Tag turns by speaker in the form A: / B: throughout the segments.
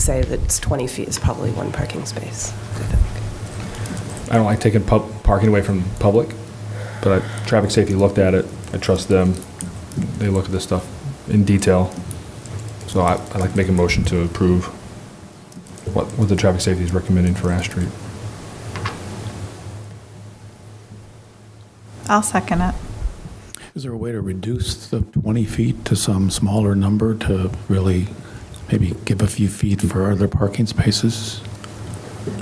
A: say that it's 20 feet is probably one parking space, I think.
B: I don't like taking pub, parking away from public, but I, traffic safety looked at it. I trust them. They look at this stuff in detail. So I, I'd like to make a motion to approve what, what the traffic safety is recommending for Ash Street.
C: I'll second it.
D: Is there a way to reduce the 20 feet to some smaller number to really maybe give a few feet for other parking spaces?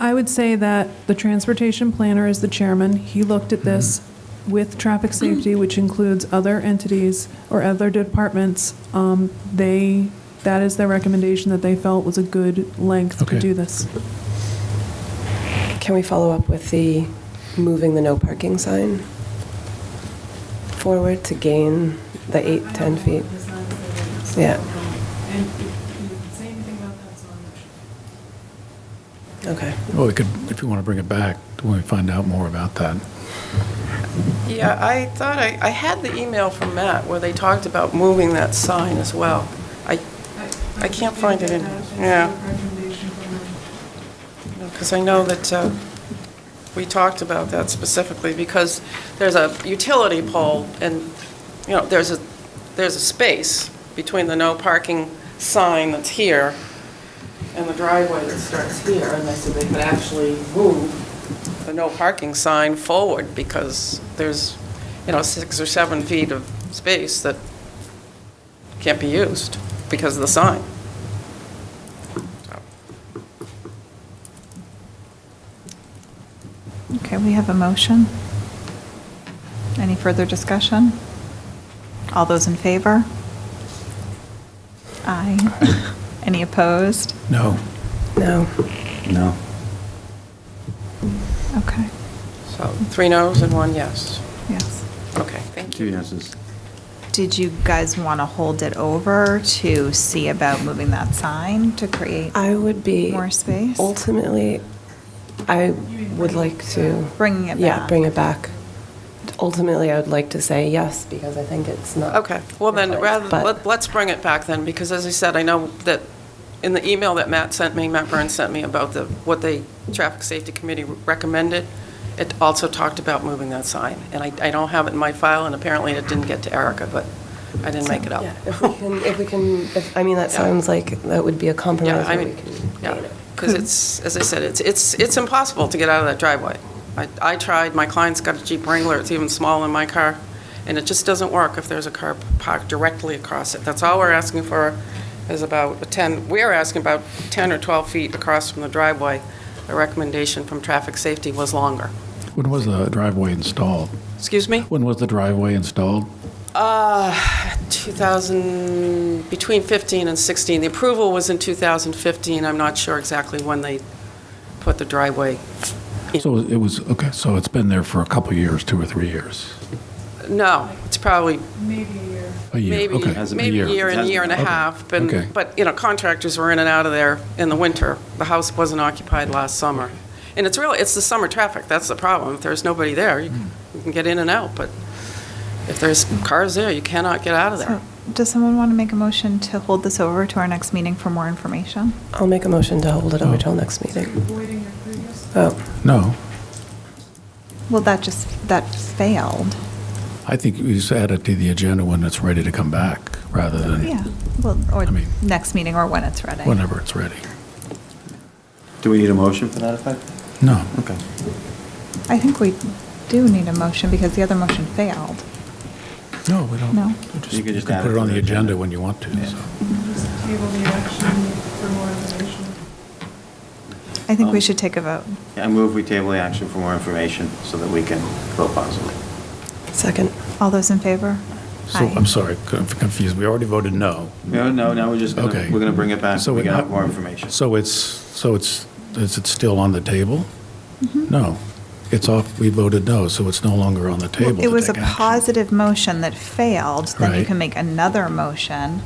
E: I would say that the transportation planner is the chairman. He looked at this with traffic safety, which includes other entities or other departments. Um, They, that is their recommendation that they felt was a good length to
D: Okay.
E: do this.
A: Can we follow up with the moving the no parking sign forward to gain the eight, 10 feet? Yeah. Okay.
D: Or we could, if you want to bring it back, when we find out more about that.
F: Yeah, I thought, I, I had the email from Matt where they talked about moving that sign as well. I, I can't find it in, yeah, because I know that uh, we talked about that specifically, because there's a utility pole, and, you know, there's a, there's a space between the no parking sign that's here and the driveway that starts here, and they said they could actually move the no parking sign forward, because there's, you know, six or seven feet of space that can't be used because of the sign.
C: Okay, we have a motion. Any further discussion? All those in favor? Aye. Any opposed?
D: No.
A: No.
D: No.
C: Okay,
F: So, three noes and one yes.
C: yes.
F: Okay, thank you.
G: Two yeses.
C: Did you guys want to hold it over to see about moving that sign to create
A: I would be.
C: more space?
A: Ultimately, I would like to.
C: Bringing it
A: Yeah,
C: back.
A: bring it back. Ultimately, I would like to say yes, because I think it's not.
F: Okay, well then, rather,
A: But-
F: let- let's bring it back then, because as I said, I know that in the email that Matt sent me, Matt Burns sent me about the, what the Traffic Safety Committee recommended, it also talked about moving that sign, and I, I don't have it in my file, and apparently it didn't get to Erica, but I didn't make it up.
A: Yeah, if we can, if we can, if- I mean, that sounds like that would be a
F: Yeah,
A: compromise.
F: I
A: where we
F: mean,
A: can
F: yeah,
A: gain it.
F: because it's, as I said, it's, it's, it's impossible to get out of that driveway. I, I tried, my client's got a Jeep Wrangler, it's even smaller than my car, and it just doesn't work if there's a car parked directly across it. That's all we're asking for, is about a 10, we're asking about 10 or 12 feet across from the driveway. The recommendation from traffic safety was longer.
D: When was the driveway installed?
F: Excuse me?
D: When was the driveway installed?
F: Uh, 2000, between 15 and 16. The approval was in 2015, I'm not sure exactly when they put the driveway
D: So it was, okay, so it's been there for a couple years, two or three years?
F: No, it's probably
D: A year,
F: maybe,
D: okay.
G: Hasn't
F: maybe a year and a year and a
D: Okay.
F: half. But,
D: Okay.
F: but, you know, contractors were in and out of there in the winter. The house wasn't occupied last summer. And it's really, it's the summer traffic, that's the problem. If there's nobody there, you
D: Hmm.
F: you can get in and out, but if there's cars there, you cannot get out of there.
C: So, Does someone want to make a motion to hold this over to our next meeting for more information?
A: I'll make a motion to hold it over till next meeting. Oh,
D: No.
C: Well, that just, that failed.
D: I think we just add it to the agenda when it's ready to come back, rather
C: Yeah,
D: than
C: well, or
D: I mean-
C: next meeting or when it's ready.
D: whenever it's ready.
G: Do we need a motion for that effect?
D: No.
G: Okay.
C: I think we do need a motion because the other motion failed.
D: No, we don't.
C: No.
D: We just-
G: You could just add
D: put
G: it
D: it
G: to
D: on
G: the
D: the
G: agenda.
D: agenda when you want to, so.
C: I think we
G: Um,
C: should take a vote.
G: I move we table the action for more information so that we can vote positively.
A: second.
C: All those in favor?
D: So,
C: Aye.
D: I'm sorry, I'm confused. We already voted no.
G: No, no, now we're just going to,
D: Okay.
G: we're going to bring it back.
D: So
G: We're
D: it-
G: going to have more information.
D: So it's, so it's, is it still on the table?
C: Mm-hmm.
D: No. It's off, we voted no, so it's no longer on the table
C: It
D: to
C: was a
D: take action.
C: positive motion that failed, then you
D: Right.
C: can make another motion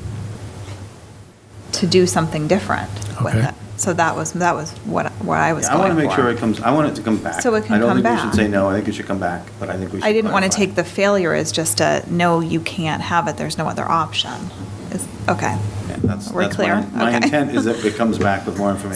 C: to do something different with
D: Okay.
C: it. So that was, that was what, what I was
G: Yeah, I
C: going for.
G: want to make sure it comes, I want it to come back.
C: So it can come
G: I don't think we
C: back.
G: should say no, I think it should come back, but I think we should.
C: I didn't want to
G: clarify.
C: take the failure as just a, no, you can't have it, there's no other option. Is, okay.
G: Yeah, that's-
C: We're
G: that's my-
C: clear?
G: My
C: Okay.
G: intent is that it comes back with more information.